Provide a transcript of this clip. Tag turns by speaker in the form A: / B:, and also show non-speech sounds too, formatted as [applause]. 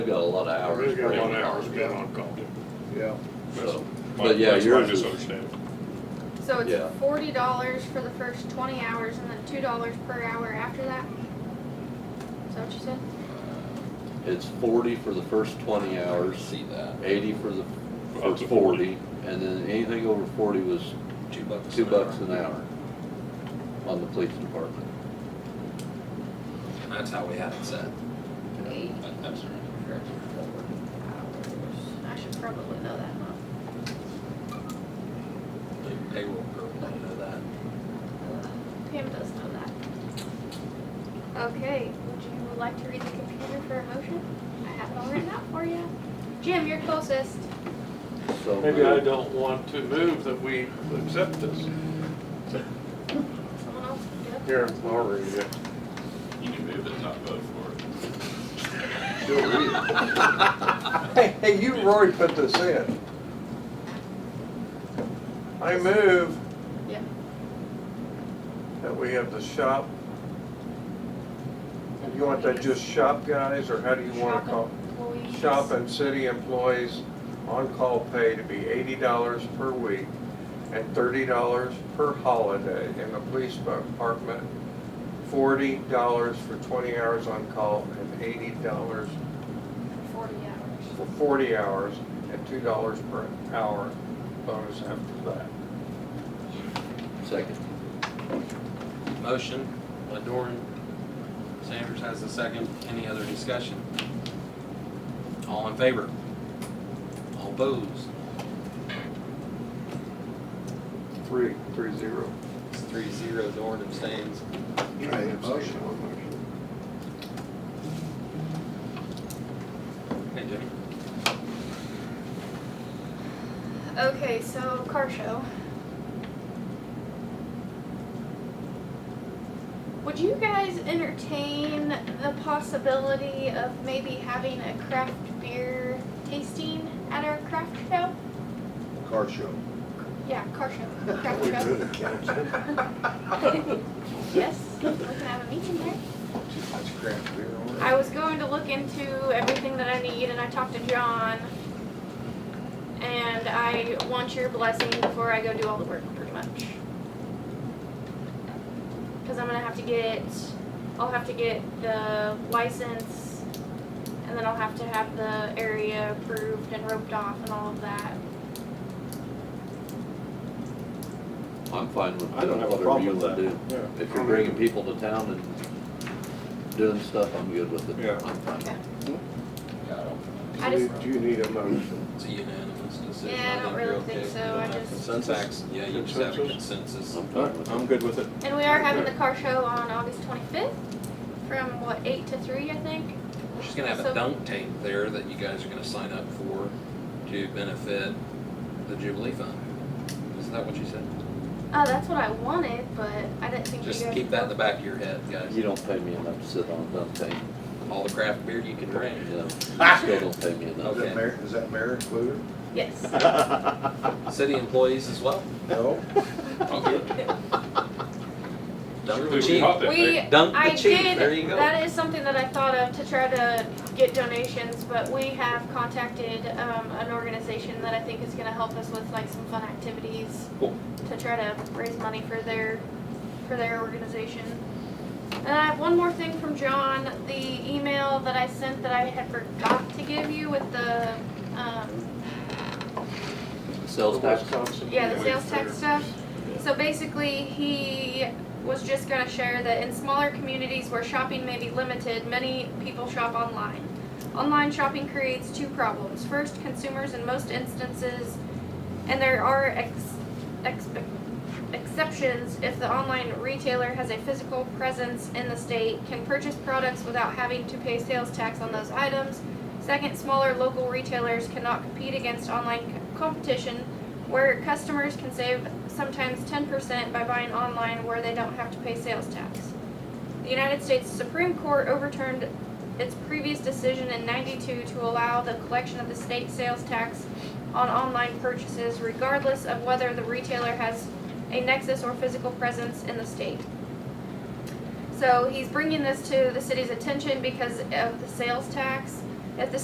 A: We've got a lot of hours.
B: We've got a lot of hours
A: spent
B: spent
A: on
B: on call.
C: Yeah,
A: it.
B: That's
A: So,
B: my-
A: But yeah,
B: that's my
A: yours is-
B: misunderstanding.
D: So
A: Yeah.
D: it's forty dollars for the first twenty hours and then two dollars per hour after that? Is that what you said?
A: It's forty for the first twenty hours,
E: See that,
A: eighty for the, for
B: Up to
A: forty,
B: 40.
A: and then anything over forty was
E: two bucks.
A: two
E: an
A: bucks
E: hour.
A: an hour on the police department.
E: That's how we had it set.
D: Eight
E: That- That's right.
D: for four hours. I should probably know that, huh?
E: The Payroll girl didn't know that.
D: Uh, Pam does know that. Okay, would you like to read the computer for a motion? I have it all written out for you. Jim, you're closest.
A: So uh,
B: Maybe I
A: moved.
B: don't want to move that we accept this.
D: Someone else can do it.
C: here, I'll read it.
B: You can move it, not vote for it.
C: She'll read it. Hey, hey, you already put this in. I move
D: Yeah.
C: that we have the shop. You want that just shop guys, or how do you want to call?
D: Employees.
C: Shop and city employees on-call pay to be eighty dollars per week and thirty dollars per holiday in the police department. Forty dollars for twenty hours on-call and eighty dollars
D: Forty hours.
C: for forty hours and two dollars per hour bonus after that.
A: Second.
E: Motion, Ladorn. Sanders has the second. Any other discussion? All in favor? All opposed?
C: Three, three zero.
E: It's three zero, Dorn abstains.
C: You made a motion on
E: Hey, Jimmy.
D: Okay, so car show. Would you guys entertain the possibility of maybe having a craft beer tasting at our craft show?
F: car show.
D: Yeah, car
F: [laughs]
D: show, craft show. Yes, we can have a meeting there.
F: That's craft beer. all right.
D: I was going to look into everything that I need and I talked to John. And I want your blessing before I go do all the work, pretty much. Cause I'm gonna have to get, I'll have to get the license and then I'll have to have the area approved and roped off and all of that.
A: I'm fine with
F: I don't have a
A: whatever
F: problem
A: you
F: with
A: want to do.
C: Yeah.
A: If you're bringing people to town and doing stuff, I'm good with it.
C: Yeah.
A: I'm fine.
D: Okay.
E: Yeah, I don't.
D: I
C: Do you-
D: just-
C: Do you need a motion?
E: It's a unanimous decision.
D: Yeah, I don't
E: you're
D: really think
E: okay.
D: so,
E: You don't
D: I
E: have
D: just-
E: Consensus, yeah, you just have a consensus.
A: I'm fine with it.
F: good with it.
D: And we are having the car show on August twenty-fifth from what, eight to three, I think?
E: She's gonna have
D: So-
E: a dunk tank there that you guys are gonna sign up for to benefit the Jubilee Fund. Isn't that what you said?
D: Uh, that's what I wanted, but I didn't think you
E: Just
D: guys.
E: keep that in the back of your head, guys.
A: You don't pay me enough to sit on a dump tank.
E: All the craft beer you can drink.
A: No, still don't pay me enough.
F: Is that mayor, is that mayor included?
D: Yes.
E: City employees as [laughs] well.
F: No?
D: [laughs]
E: Dunk
B: Surely
E: the
B: we
E: cheap.
B: ought to
D: We,
B: think.
E: Dunk the
D: I
E: cheap,
D: did,
E: there you go.
D: that is something that I thought of to try to get donations, but we have contacted, um, an organization that I think is gonna help us with like some fun activities.
E: Cool.
D: To try to raise money for their, for their organization. And I have one more thing from John, the email that I sent that I had forgot to give you with the, um,
A: Sales tax,
D: Yeah, the sales tax stuff. So basically, he was just gonna share that in smaller communities where shopping may be limited, many people shop online. Online shopping creates two problems. First, consumers in most instances, and there are ex, expe- exceptions if the online retailer has a physical presence in the state, can purchase products without having to pay sales tax on those items. Second, smaller local retailers cannot compete against online co- competition where customers can save sometimes 10% by buying online where they don't have to pay sales tax. The United States Supreme Court overturned its previous decision in 92 to allow the collection of the state sales tax on online purchases regardless of whether the retailer has a nexus or physical presence in the state. So he's bringing this to the city's attention because of the sales tax. If the